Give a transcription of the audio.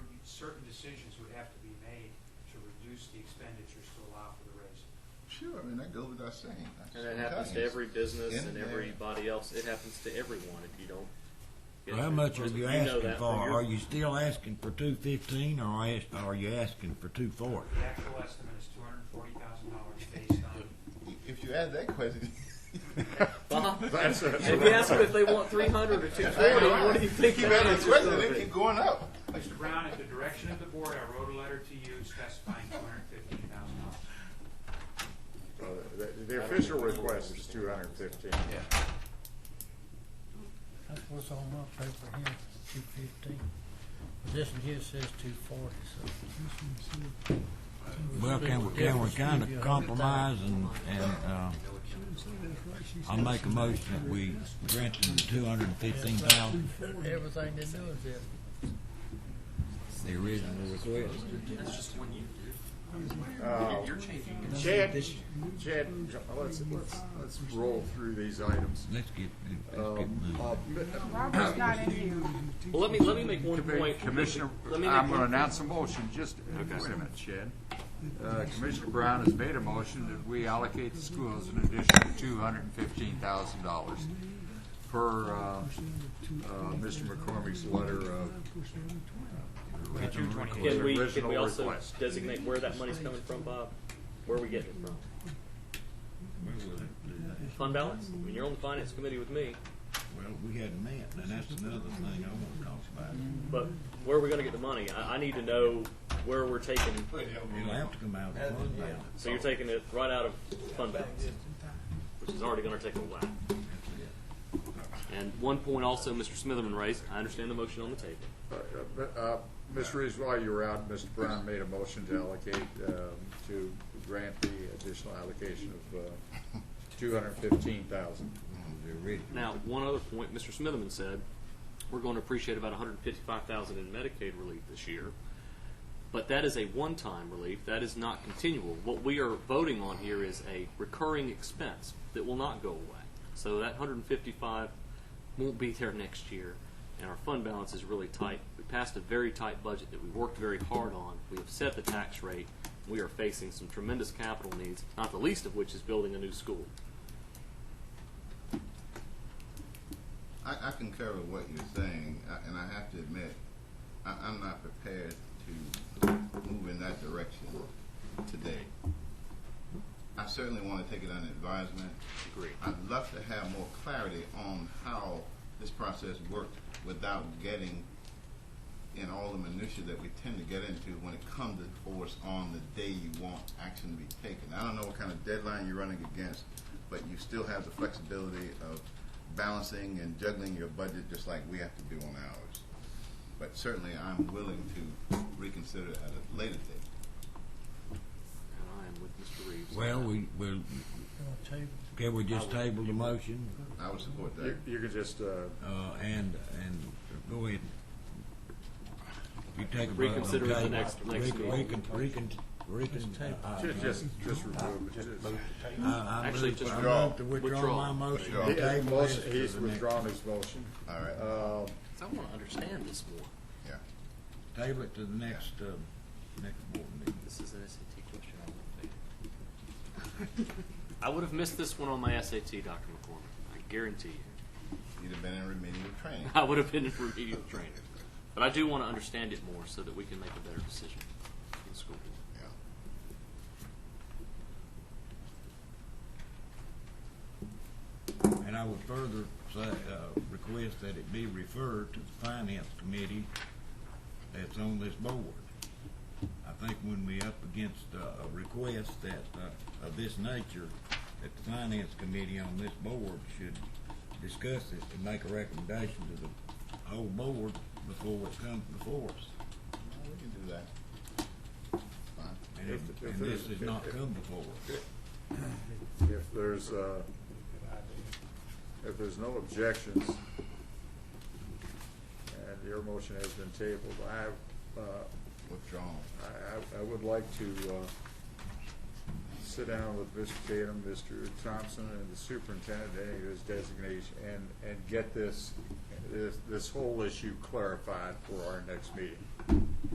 certain decisions would have to be made to reduce the expenditures to allow for the raise. Sure, I mean, that goes without saying. That's And it what happens to happens. every business In and there. everybody else. It happens to everyone if you don't. get Well, how through much the are process. you know asking that for? from your- Are you still asking for two fifteen, or as- are you asking for two forty? The actual estimate is two hundred and forty thousand dollars based on, If you ask that question, If you ask them if they want three hundred or two twenty, what do you think? keep the asking answer's the question, gonna they be? keep going up. Mr. Brown, at the direction of the board, I wrote a letter to you specifying two hundred and fifteen thousand dollars. Uh, the- The official request is two hundred and fifteen. That's what's on my paper here, two fifteen. This one here says two forty, so. Well, can we, can we kind of compromise and, and, uh, I'll make a motion that we grant them the two hundred and fifteen thousand, Everything they're doing is it. the original request. Chad, Chad, let's, let's, let's roll through these items. Let's get, let's get Um, moving. uh, Robert's not in here. Well, let me, let me make one Commi- point. Commissioner, Let me make I'm one- gonna announce a motion, just, wait a minute, Chad. Uh, Commissioner Brown has made a motion that we allocate the schools an additional two hundred and fifteen thousand dollars per, uh, uh, Mr. McCormick's letter of. Two twenty-eight. Can we, can original we also request. designate where that money's coming from, Bob? Where are we getting it from? Fund balance? I mean, you're on the finance committee with me, Well, we hadn't met, and that's another thing I want to talk about. but where are we gonna get the money? I, I need to know where we're taking, It'll have to come out of the fund balance. so you're taking it right out of fund balance, which is already gonna take a while. And one point also Mr. Smitherman raised, I understand the motion on the table. Uh, uh, Ms. Reeves, while you were out, Mr. Brown made a motion to allocate, um, to grant the additional allocation of uh, two hundred and fifteen thousand. The original. Now, one other point, Mr. Smitherman said, we're going to appreciate about 155,000 in Medicaid relief this year, but that is a one-time relief. That is not continual. What we are voting on here is a recurring expense that will not go away. So that 155 won't be there next year, and our fund balance is really tight. We passed a very tight budget that we worked very hard on. We have set the tax rate. We are facing some tremendous capital needs, not the least of which is building a new school. I, I concur with what you're saying, I- and I have to admit, I, I'm not prepared to move in that direction today. I certainly want to take it under advisement. Agreed. I'd love to have more clarity on how this process worked without getting in all the minutia that we tend to get into when it comes to force on the day you want action to be taken. I don't know what kind of deadline you're running against, but you still have the flexibility of balancing and juggling your budget just like we have to do on ours. But certainly, I'm willing to reconsider at a later date. And I am with Mr. Reeves. Well, we, we'll, Gonna table can we just table the motion, I would support that. You, you could just, uh, uh, and, and go ahead. You take a vote. on Reconsider at the table. next- next Recon- meeting. Recon, recon, recon, uh, uh, ju- just, just remove it. I, I Actually, move, just I withdraw. move to withdraw Withdraw. my motion. Withdraw. to He- Okay, his table this motion- to He's the next- withdrawn his motion. All right. Uh, I want to understand this more. Yeah. Table it to the next, uh, next board meeting. This is an SAT question. I won't take it. I would have missed this one on my SAT, Dr. McCormick. I guarantee you. You'd have been in remedial training. I would have been in remedial training. But I do want to understand it more so that we can make a better decision in the school board. Yeah. And I would further say, uh, request that it be referred to the finance committee that's on this board. I think when we up against uh, a request that, uh, of this nature, that the finance committee on this board should discuss this and make a recommendation to the whole board before it comes before us. Well, We can do that. Fine. And, If- if and this there's- has not if- come before us. If there's, uh, if there's no objections, and your motion has been tabled, I, uh, Withdrawn. I, I- I would like to uh, sit down with Mr. Tatum, Mr. Thompson, and the superintendent, any of his designation, and, and get this, this, this whole issue clarified for our next meeting.